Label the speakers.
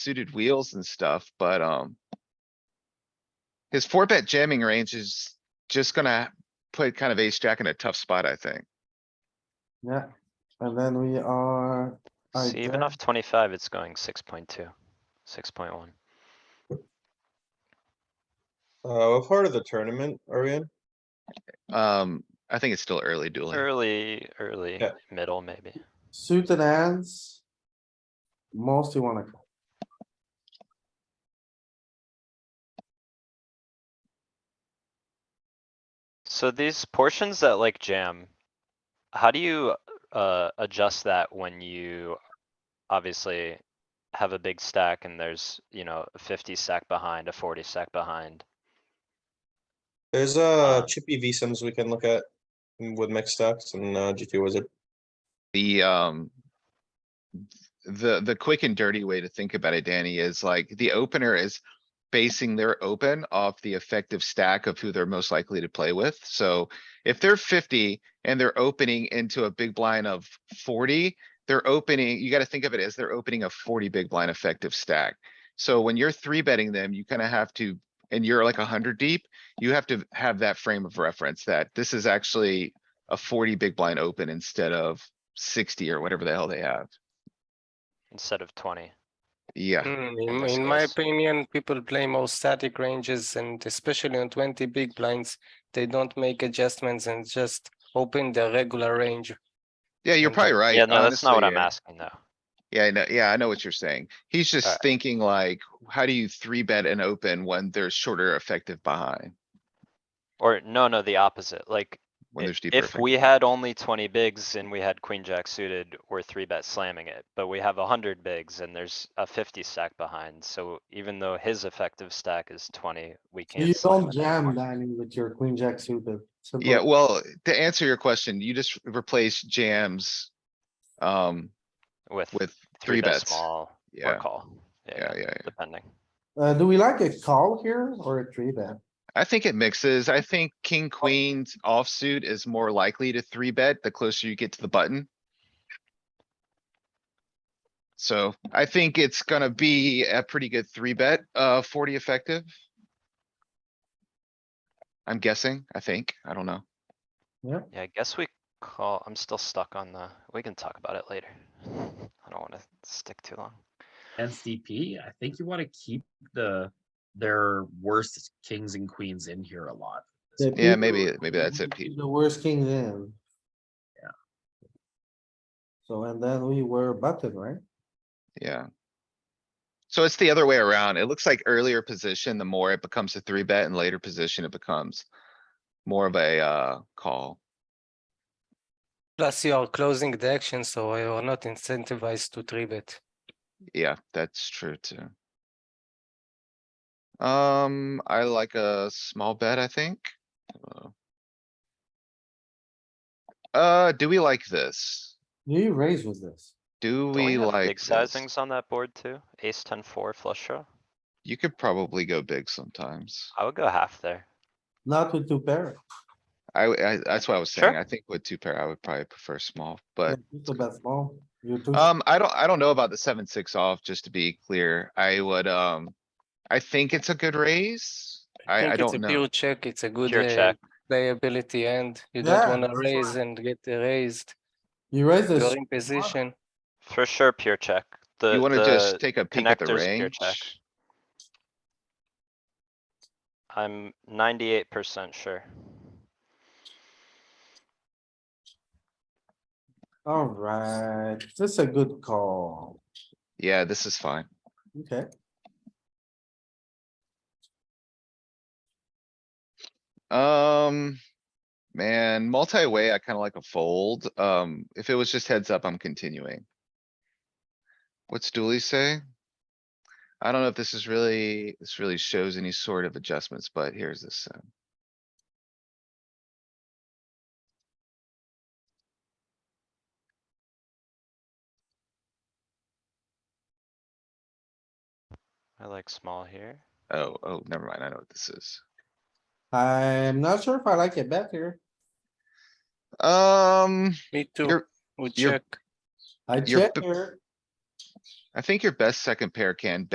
Speaker 1: suited wheels and stuff, but, um. His four bet jamming range is just gonna put kind of ace jack in a tough spot, I think.
Speaker 2: Yeah, and then we are. I
Speaker 3: See, even
Speaker 2: guess-
Speaker 3: off twenty-five, it's going six point two, six point one.
Speaker 4: Uh, what part of the tournament are we in?
Speaker 1: Um, I think it's still early dueling.
Speaker 3: Early, early,
Speaker 4: Yeah.
Speaker 3: middle, maybe.
Speaker 2: Suited hands. Mostly wanna. call.
Speaker 3: So these portions that like jam, how do you, uh, adjust that when you obviously have a big stack and there's, you know, a fifty stack behind, a forty stack behind?
Speaker 4: There's uh
Speaker 3: Uh,
Speaker 4: chippy V sims we can look at mm, with mixed stacks and uh GT wizard.
Speaker 1: The, um. The, the quick and dirty way to think about it, Danny, is like the opener is basing their open off the effective stack of who they're most likely to play with. So if they're fifty and they're opening into a big blind of forty, they're opening, you gotta think of it as they're opening a forty big blind effective stack. So when you're three betting them, you kinda have to, and you're like hundred deep, you have to have that frame of reference that this is actually a forty big blind open instead of sixty or whatever the hell they have.
Speaker 3: Instead of twenty,
Speaker 1: Yeah.
Speaker 5: Mm,
Speaker 3: in
Speaker 5: In
Speaker 3: this
Speaker 5: in my
Speaker 3: case.
Speaker 5: opinion, people play more static ranges and especially on twenty big blinds, they don't make adjustments and just open the regular range.
Speaker 1: Yeah, you're
Speaker 5: And, uh,
Speaker 1: probably right.
Speaker 3: yeah, no, that's
Speaker 1: honestly,
Speaker 3: not
Speaker 1: uh,
Speaker 3: what I'm
Speaker 1: yeah.
Speaker 3: asking though.
Speaker 1: Yeah, I know, yeah, I know what you're saying. He's just
Speaker 3: Alright.
Speaker 1: thinking like, how do you three bet and open when there's shorter effective behind?
Speaker 3: Or, no, no, the opposite, like,
Speaker 1: When
Speaker 3: i-
Speaker 1: there's deeper.
Speaker 3: If
Speaker 1: effect-
Speaker 3: we had only twenty bigs and we had queen jack suited, we're three bet slamming it, but we have a hundred bigs and there's a fifty stack behind, so even though his effective stack is twenty, we can't.
Speaker 2: You
Speaker 3: slam
Speaker 2: don't
Speaker 3: it anymore.
Speaker 2: jam dining with your queen jack suited. Simple.
Speaker 1: Yeah, well, to answer your question, you just replace jams. Um,
Speaker 3: With
Speaker 1: with
Speaker 3: three
Speaker 1: three
Speaker 3: bet
Speaker 1: bets.
Speaker 3: small or
Speaker 1: Yeah,
Speaker 3: call,
Speaker 1: yeah,
Speaker 3: yeah,
Speaker 1: yeah.
Speaker 3: depending.
Speaker 2: Uh, do we like a call here or a three bet?
Speaker 1: I think it mixes. I think king, queens offsuit is more likely to three bet the closer you get to the button. So I think it's gonna be a pretty good three bet, uh, forty effective. I'm guessing, I think. I don't know.
Speaker 3: Yeah, I guess we call, I'm still stuck on the, we can talk about it later. I don't wanna stick too long.
Speaker 6: SDP, I think you want to keep the their worst kings and queens in here a lot.
Speaker 2: The
Speaker 1: Yeah,
Speaker 2: people-
Speaker 1: maybe, maybe that's it, Pete.
Speaker 2: The worst king in.
Speaker 6: Yeah.
Speaker 2: So and then we were button, right?
Speaker 1: Yeah. So it's the other way around. It looks like earlier position, the more it becomes a three bet and later position, it becomes more of a, uh, call.
Speaker 5: Plus you are closing the action, so you are not incentivized to three bet.
Speaker 1: Yeah, that's true too. Um, I like a small bet, I think. Uh, Uh, do we like this?
Speaker 2: Do you raise with this?
Speaker 1: Do
Speaker 3: Don't
Speaker 1: we
Speaker 3: have
Speaker 1: like
Speaker 3: Big
Speaker 1: this?
Speaker 3: sizings on that board too, ace ten four flush draw,
Speaker 1: You could probably go big sometimes.
Speaker 3: I would go half there.
Speaker 2: Not with two pair.
Speaker 1: I, w- I- that's what I was saying.
Speaker 3: Sure.
Speaker 1: I think with two pair, I would probably prefer small, but,
Speaker 2: It's a bet small. You two.
Speaker 1: um, I don't, I don't know about the seven, six off, just to be clear. I would, um, I think it's a good raise. I, I
Speaker 5: think it's
Speaker 1: don't
Speaker 5: a
Speaker 1: know.
Speaker 5: pure check, it's a good
Speaker 3: Pure
Speaker 5: uh,
Speaker 3: check.
Speaker 5: playability and you
Speaker 2: Yeah,
Speaker 5: don't wanna
Speaker 2: that's
Speaker 5: raise and get raised.
Speaker 2: You raise
Speaker 5: You're
Speaker 2: this.
Speaker 5: in position.
Speaker 3: For sure, pure check. The,
Speaker 1: You wanna
Speaker 3: the,
Speaker 1: just take a peek at the
Speaker 3: connector's pure check.
Speaker 1: range?
Speaker 3: I'm ninety-eight percent sure.
Speaker 2: Alright, this is a good call.
Speaker 1: Yeah, this is fine.
Speaker 2: Okay,
Speaker 1: Um, man, multi-way, I kinda like a fold. Um, if it was just heads up, I'm continuing. What's Dooley say? I don't know if this is really, this really shows any sort of adjustments, but here's this. uh,
Speaker 3: I like small here.
Speaker 1: Oh, oh, never mind. I know what this is.
Speaker 2: I'm not sure if I like it better.
Speaker 1: Um,
Speaker 5: Me too,
Speaker 1: your,
Speaker 5: we
Speaker 1: you're-
Speaker 5: check.
Speaker 2: I
Speaker 1: You're
Speaker 2: check
Speaker 1: b-
Speaker 2: here.
Speaker 1: I think your best second pair can